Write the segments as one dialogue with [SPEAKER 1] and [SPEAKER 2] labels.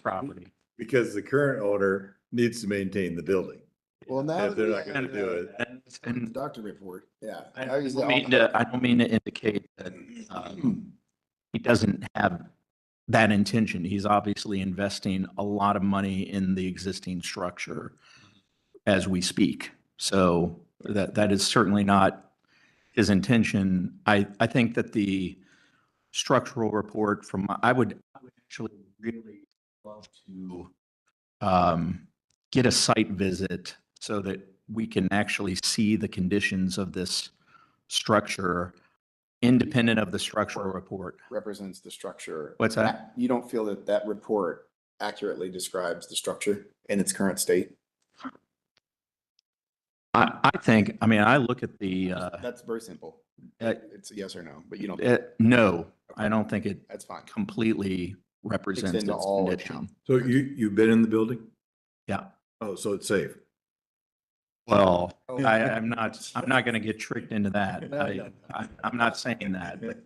[SPEAKER 1] property.
[SPEAKER 2] Because the current owner needs to maintain the building.
[SPEAKER 3] Well, now.
[SPEAKER 2] If
[SPEAKER 3] that
[SPEAKER 2] they're
[SPEAKER 3] we
[SPEAKER 2] not gonna
[SPEAKER 3] have,
[SPEAKER 2] do
[SPEAKER 3] uh,
[SPEAKER 2] it,
[SPEAKER 1] And-
[SPEAKER 3] the
[SPEAKER 1] And
[SPEAKER 3] Doctor report, yeah.
[SPEAKER 1] I
[SPEAKER 3] Now he's
[SPEAKER 1] don't
[SPEAKER 3] all-
[SPEAKER 1] mean to, I don't mean to indicate that um, he doesn't have that intention. He's obviously investing a lot of money in the existing structure as we speak. So that, that is certainly not his intention. I, I think that the structural report from, my- I would I would actually really love to um, get a site visit so that we can actually see the conditions of this structure independent of the structural report.
[SPEAKER 3] Represents the structure.
[SPEAKER 1] What's that?
[SPEAKER 3] You don't feel that that report accurately describes the structure in its current state?
[SPEAKER 1] I, I think, I mean, I look at the, uh,
[SPEAKER 3] That's very simple.
[SPEAKER 1] uh,
[SPEAKER 3] It's a yes or no, but you don't,
[SPEAKER 1] uh, no, I don't think it
[SPEAKER 3] that's fine.
[SPEAKER 1] completely represents its
[SPEAKER 3] into all it should.
[SPEAKER 1] condition.
[SPEAKER 2] So you, you've been in the building?
[SPEAKER 1] Yeah.
[SPEAKER 2] Oh, so it's safe.
[SPEAKER 1] Well,
[SPEAKER 3] Oh.
[SPEAKER 1] I, I'm not, I'm not going to get tricked into that. I, I- I'm not saying that, but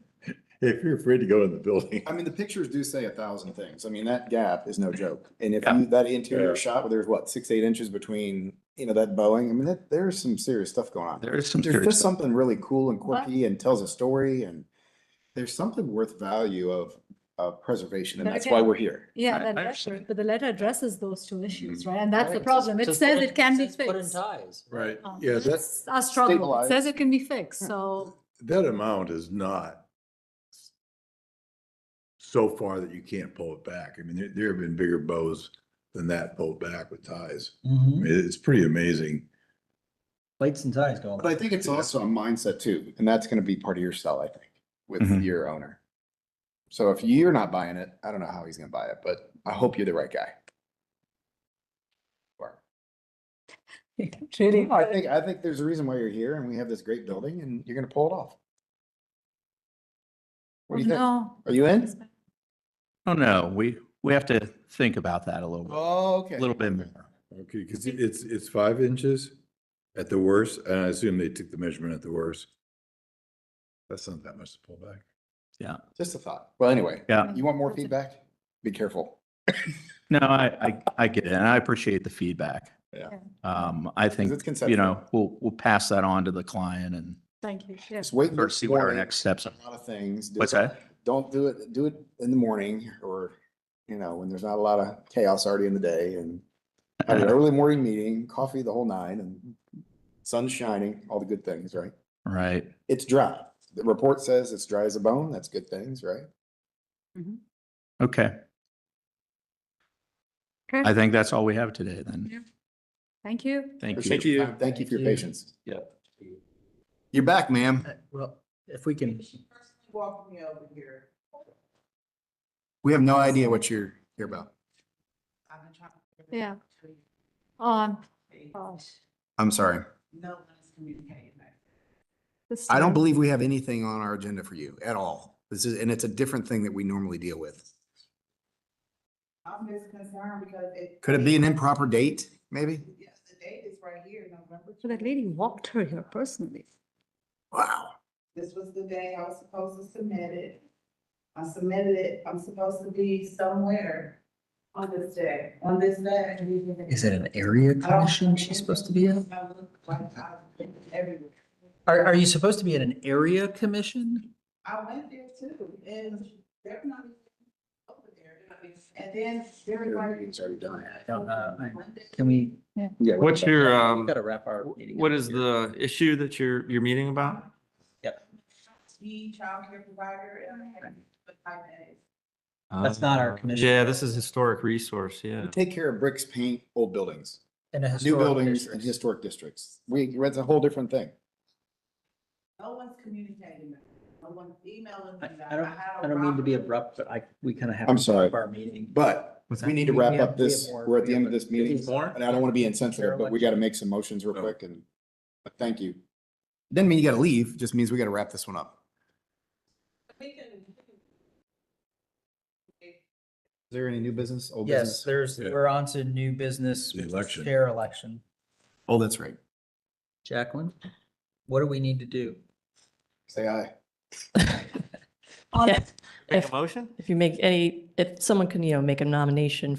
[SPEAKER 2] If you're afraid to go in the building.
[SPEAKER 3] I mean, the pictures do say a thousand things. I mean, that gap is no joke. And if
[SPEAKER 1] Yeah.
[SPEAKER 3] you, that interior
[SPEAKER 2] Yeah.
[SPEAKER 3] shot, where there's what, six, eight inches between, you know, that Boeing, I mean, that, there's some serious stuff going on.
[SPEAKER 1] there is some
[SPEAKER 3] There's
[SPEAKER 1] serious
[SPEAKER 3] just
[SPEAKER 1] stuff.
[SPEAKER 3] something really cool and quirky and tells a story and there's something worth value of, of preservation and
[SPEAKER 4] But
[SPEAKER 3] that's why
[SPEAKER 4] again-
[SPEAKER 3] we're here.
[SPEAKER 1] I-
[SPEAKER 4] Yeah,
[SPEAKER 1] I
[SPEAKER 4] that letter,
[SPEAKER 1] understand.
[SPEAKER 4] but the letter addresses those two issues, right? And that's the
[SPEAKER 5] Right,
[SPEAKER 4] problem. It
[SPEAKER 5] just
[SPEAKER 4] says
[SPEAKER 5] put
[SPEAKER 4] it can be
[SPEAKER 5] just Put in
[SPEAKER 4] fixed.
[SPEAKER 5] ties.
[SPEAKER 2] Right,
[SPEAKER 4] Um,
[SPEAKER 2] yeah, that,
[SPEAKER 4] That's our struggle. It
[SPEAKER 3] Stabilize.
[SPEAKER 4] says it can be fixed, so
[SPEAKER 2] that amount is not so far that you can't pull it back. I mean, there, there have been bigger bows than that pulled back with ties. I
[SPEAKER 5] Mm-hmm.
[SPEAKER 2] mean, It's pretty amazing.
[SPEAKER 5] Plates and ties going.
[SPEAKER 3] But I think it's also a mindset too, and that's gonna be part of your sell, I think, with
[SPEAKER 1] Mhm.
[SPEAKER 3] your owner. So if you're not buying it, I don't know how he's gonna buy it, but I hope you're the right guy. Or-
[SPEAKER 4] it really.
[SPEAKER 3] I think, I think there's a reason why you're here and we have this great building and you're gonna pull it off. What do you think?
[SPEAKER 4] No.
[SPEAKER 3] Are you in? Uh,
[SPEAKER 1] Oh, no, we, we have to think about that a little, bit.
[SPEAKER 3] Oh,
[SPEAKER 1] a
[SPEAKER 3] okay.
[SPEAKER 1] little bit more.
[SPEAKER 2] Okay, because it's, it's five inches at the worst, and I assume they took the measurement at the worst. That's not that much to pull back.
[SPEAKER 3] Just a thought. Well, anyway,
[SPEAKER 1] Yeah.
[SPEAKER 3] you want more feedback? Be careful.
[SPEAKER 1] No, I, I, I get it, and I appreciate the feedback.
[SPEAKER 3] Yeah.
[SPEAKER 4] Yeah.
[SPEAKER 1] Um, I think,
[SPEAKER 3] it's
[SPEAKER 1] you
[SPEAKER 3] conceptual.
[SPEAKER 1] know, we'll, we'll pass that on to the client and
[SPEAKER 4] Thank you.
[SPEAKER 3] Just wait.
[SPEAKER 1] sort of see what our
[SPEAKER 3] morning,
[SPEAKER 1] next steps
[SPEAKER 3] A
[SPEAKER 1] are.
[SPEAKER 3] lot of things. Do
[SPEAKER 1] What's
[SPEAKER 3] it-
[SPEAKER 1] that?
[SPEAKER 3] Don't do it, do it in the morning or, you know, when there's not a lot of chaos already in the day and have an early morning meeting, coffee the whole nine and sun's shining, all the good things, right?
[SPEAKER 1] Right.
[SPEAKER 3] It's dry. The report says it's dry as a bone. That's good things, right?
[SPEAKER 1] Okay. I think that's all we have today then.
[SPEAKER 4] Yeah. Thank you.
[SPEAKER 1] Thank
[SPEAKER 3] Appreciate
[SPEAKER 1] you.
[SPEAKER 3] your time. Thank you for your
[SPEAKER 5] Thank you.
[SPEAKER 3] patience.
[SPEAKER 1] Yeah.
[SPEAKER 3] You're back, ma'am.
[SPEAKER 5] Well, if we can,
[SPEAKER 6] Walk me over here.
[SPEAKER 3] We have no idea what you're here about.
[SPEAKER 6] I've been trying to-
[SPEAKER 4] Yeah. Um, gosh.
[SPEAKER 3] I'm sorry.
[SPEAKER 6] No one's communicating that.
[SPEAKER 4] this
[SPEAKER 3] I don't
[SPEAKER 4] time-
[SPEAKER 3] believe we have anything on our agenda for you at all. This is, and it's a different thing that we normally deal with.
[SPEAKER 6] I'm just concerned because it.
[SPEAKER 3] Could it be an improper date, maybe?
[SPEAKER 6] Yes, the date is right here, November.
[SPEAKER 4] So That lady walked her here personally.
[SPEAKER 3] Wow.
[SPEAKER 6] This was the day I was supposed to submit it. I submitted it, I'm supposed to be somewhere on this day, on this day.
[SPEAKER 5] is it an area commission she's supposed to be at?
[SPEAKER 6] I look like I've been everywhere.
[SPEAKER 5] Are, are you supposed to be at an area commission?
[SPEAKER 6] I went there too, and they're not even over there. And then everybody.
[SPEAKER 3] It's already done.
[SPEAKER 5] I don't know. I- Can we?
[SPEAKER 3] Yeah.
[SPEAKER 7] What's your,
[SPEAKER 5] We've
[SPEAKER 7] um,
[SPEAKER 5] Got to wrap our meeting.
[SPEAKER 7] what
[SPEAKER 5] up
[SPEAKER 7] is
[SPEAKER 5] here.
[SPEAKER 7] the issue that you're, you're meeting about?
[SPEAKER 6] The childcare provider and type A.
[SPEAKER 5] That's not our commission.
[SPEAKER 7] Yeah, this is historic resource, yeah.
[SPEAKER 3] Take care of bricks, paint, old buildings,
[SPEAKER 5] And a
[SPEAKER 3] new
[SPEAKER 5] historic
[SPEAKER 3] buildings
[SPEAKER 5] district.
[SPEAKER 3] and historic districts. We, that's a whole different thing.
[SPEAKER 6] No one's communicating that. No one's emailing
[SPEAKER 5] I
[SPEAKER 6] them that.
[SPEAKER 5] I don't,
[SPEAKER 6] had a
[SPEAKER 5] I don't mean to be
[SPEAKER 6] problem.
[SPEAKER 5] abrupt, but I, we kind of have.
[SPEAKER 3] I'm
[SPEAKER 5] to
[SPEAKER 3] sorry.
[SPEAKER 5] wrap Our meeting.
[SPEAKER 3] But
[SPEAKER 7] What's
[SPEAKER 3] we
[SPEAKER 7] that?
[SPEAKER 3] need to
[SPEAKER 5] We
[SPEAKER 3] wrap
[SPEAKER 5] have-
[SPEAKER 3] up
[SPEAKER 5] we have
[SPEAKER 3] this,
[SPEAKER 5] more-
[SPEAKER 3] we're at the
[SPEAKER 5] we
[SPEAKER 3] end
[SPEAKER 5] have
[SPEAKER 3] of
[SPEAKER 5] a-
[SPEAKER 3] this meeting.
[SPEAKER 7] More?
[SPEAKER 3] And I don't want to be insensitive, but we got to make some motions real quick and, but thank you. Doesn't mean you got to leave, just means we got to wrap this one up.
[SPEAKER 6] We can- we can-
[SPEAKER 3] Is there any new business, old
[SPEAKER 5] Yes,
[SPEAKER 3] business?
[SPEAKER 5] there's,
[SPEAKER 2] Yeah.
[SPEAKER 5] we're on to new business.
[SPEAKER 2] The
[SPEAKER 5] which is
[SPEAKER 2] election.
[SPEAKER 5] Chair election.
[SPEAKER 3] Oh, that's right.
[SPEAKER 5] Jacqueline, what do we need to do?
[SPEAKER 3] Say aye.
[SPEAKER 8] Yeah,
[SPEAKER 7] Make a motion?
[SPEAKER 8] If you make any, if someone can, you know, make a nomination